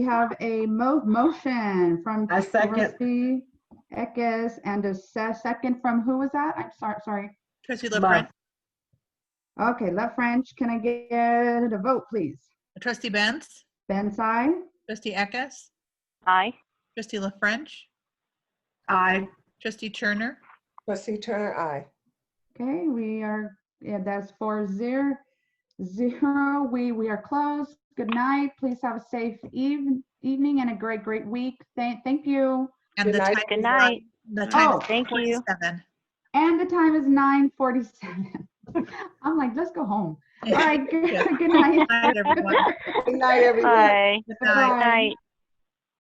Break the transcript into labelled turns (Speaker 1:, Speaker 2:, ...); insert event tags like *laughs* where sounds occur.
Speaker 1: We have a mo- motion from.
Speaker 2: I second.
Speaker 1: trustee Eckes and a se- second from, who was that? I'm sorry, sorry.
Speaker 3: Trustee
Speaker 2: Love.
Speaker 3: LaFrench,
Speaker 1: Okay, Left French, can I get a vote, please?
Speaker 3: trustee Benz,
Speaker 1: Ben Tsai,
Speaker 3: trustee Eckes,
Speaker 4: Aye.
Speaker 3: trustee LaFrench,
Speaker 2: Aye.
Speaker 3: trustee Turner,
Speaker 5: Trustee Turner, aye.
Speaker 1: okay, we are, yeah, that's four zero, zero, we, we are closed. Good night, please have a safe even, evening and a great, great week. Thank, thank you.
Speaker 3: and
Speaker 5: Good
Speaker 3: the
Speaker 5: night.
Speaker 3: time.
Speaker 4: Good
Speaker 3: is
Speaker 4: night.
Speaker 3: on- The time
Speaker 1: Oh,
Speaker 3: is
Speaker 4: thank you.
Speaker 3: 47.
Speaker 1: And the time is nine forty-seven. *laughs* I'm like, let's go home. All right, *laughs* good
Speaker 3: Yeah.
Speaker 1: good night.
Speaker 3: Good night, everyone.
Speaker 5: Good night, everyone.
Speaker 4: Aye.
Speaker 3: Good
Speaker 1: Bye.
Speaker 3: night.
Speaker 4: Night.